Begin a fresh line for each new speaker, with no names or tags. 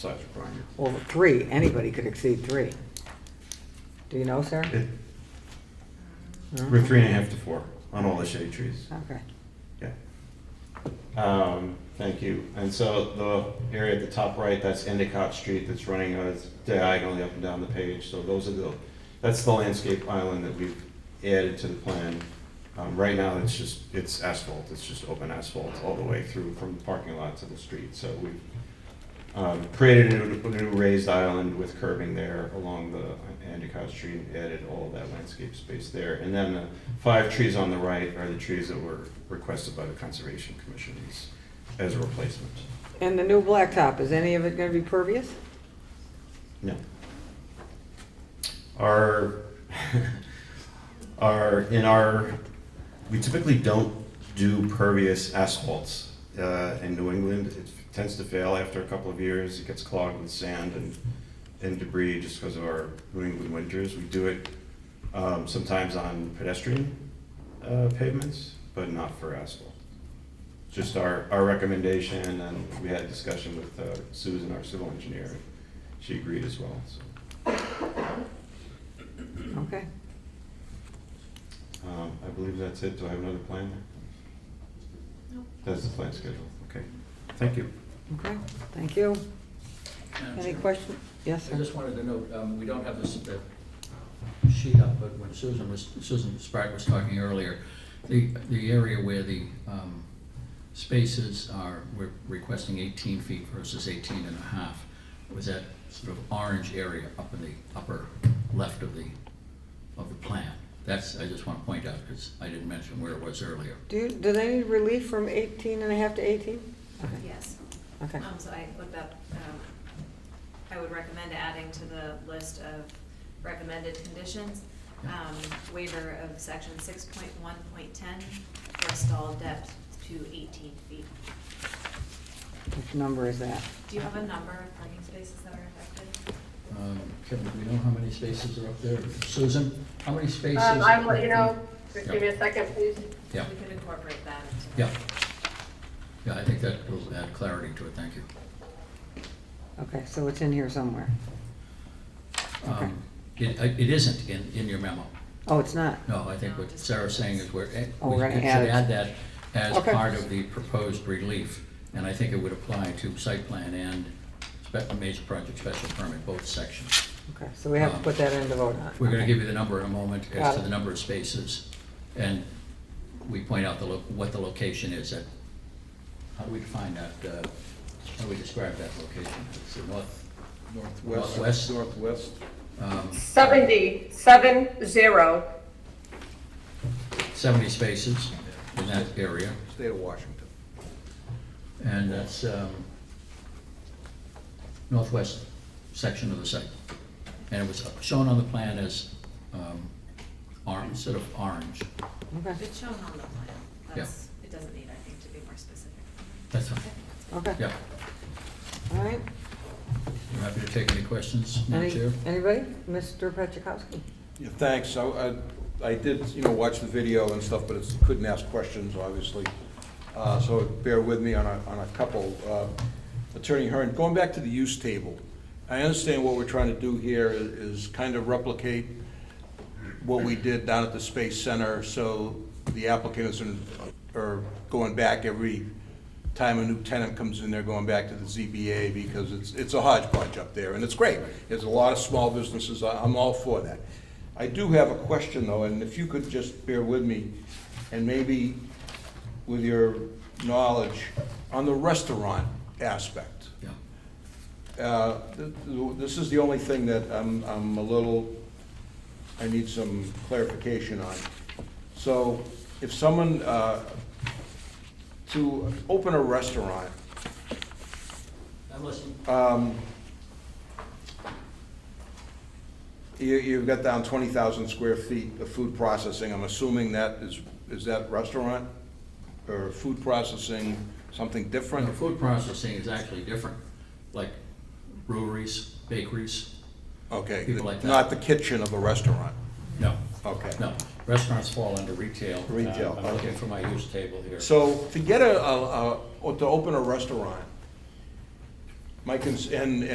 size requirement.
Well, three, anybody could exceed three. Do you know, sir?
It-
No?
We're three and a half to four on all the shade trees.
Okay.
Yeah. Um, thank you. And so the area at the top right, that's Endicott Street that's running uh, diagonally up and down the page. So those are the, that's the landscape island that we've added to the plan. Um, right now, it's just, it's asphalt. It's just open asphalt all the way through from the parking lot to the street. So we've um, created a new- a new raised island with curbing there along the Endicott Street, and added all of that landscape space there. And then the five trees on the right are the trees that were requested by the Conservation Commission as- as a replacement.
And the new blacktop, is any of it gonna be pervious?
No. Our, our, in our, we typically don't do pervious asphalts uh, in New England. It tends to fail after a couple of years. It gets clogged with sand and, and debris just because of our New England winters. We do it um, sometimes on pedestrian uh, pavements, but not for asphalt. Just our, our recommendation, and we had a discussion with uh, Susan, our civil engineer, she agreed as well, so.
Okay.
Um, I believe that's it. Do I have another plan there? That's the plan schedule. Okay. Thank you.
Okay, thank you.
Madam
Any
Chair,
questions? Yes,
I
sir.
just wanted to note, um, we don't have this uh, sheet up, but when Susan was, Susan Spratt was talking earlier, the, the area where the um, spaces are, we're requesting 18 feet versus 18 and a half, was that sort of orange area up in the upper left of the, of the plan. That's, I just want to point out, because I didn't mention where it was earlier.
Do you, do they need relief from 18 and a half to 18? Okay.
Yes.
Okay.
Um, so I looked up, um, I would recommend adding to the list of recommended conditions,
Yeah.
um, waiver of section six point one point ten for stall depth to eighteen feet.
Which number is that?
Do you have a number of parking spaces that are affected?
Um, Kevin, do we know how many spaces are up there? Susan, how many spaces?
Um, I will, you know, just give me a second, please.
Yeah.
We could incorporate that into.
Yeah. Yeah, I think that will add clarity to it, thank you.
Okay, so it's in here somewhere. Okay.
Um, It, I- it isn't in, in your memo.
Oh, it's not?
No, I think what Sarah's saying is we're, eh,
Oh,
we
we're
should
gonna add it.
add that as
Okay.
part of the proposed relief. And I think it would apply to site plan and spe- major project special permit, both sections.
Okay, so we have to put that in to vote on.
We're gonna
Okay.
give you the number in a moment
Got
as to
it.
the number of spaces. And we point out the, lo- what the location is at, how do we define that, uh, how do we describe that location? It's the north, Northwest.
Northwest, northwest.
um,
Seventy, seven, zero.
70 spaces in that area,
State of Washington.
and that's um, northwest section of the site. And it was shown on the plan as um, orange, instead of orange.
Okay,
It's shown on the plan. That's, it doesn't need, I think, to be more specific.
That's fine.
okay,
Yeah.
all right.
You happy to take any questions, Madam
Any-
Chair?
Anybody? Mr. Petrikowski?
Yeah, thanks. I, I- I did, you know, watch the video and stuff, but it's, couldn't ask questions, obviously. Uh, So bear with me on a, on a couple. Uh, Attorney Hearn, going back to the use table, I understand what we're trying to do here i- is kind of replicate what we did down at the Space Center, so the applicants are- are going back every time a new tenant comes in, they're going back to the ZBA, because it's, it's a hodgepodge up there, and it's great. There's a lot of small businesses, I- I'm all for that. I do have a question, though, and if you could just bear with me, and maybe with your knowledge, on the restaurant aspect.
Yeah.
Uh, th- th- This is the only thing that I'm, I'm a little, I need some clarification on. So if someone, uh, to open a restaurant,
I'm listening.
um, you, you've got down twenty thousand square feet of food processing, I'm assuming that is, is that restaurant? Or food processing, something different?
The food processing is actually different, like breweries, bakeries.
Okay,
people like that.
not the kitchen of a restaurant,
No,
okay.
no. Restaurants fall under retail. Uh,
Retail,
I'm looking
okay.
for my use table here.
So to get a, a, a- or to open a restaurant, my cons, and,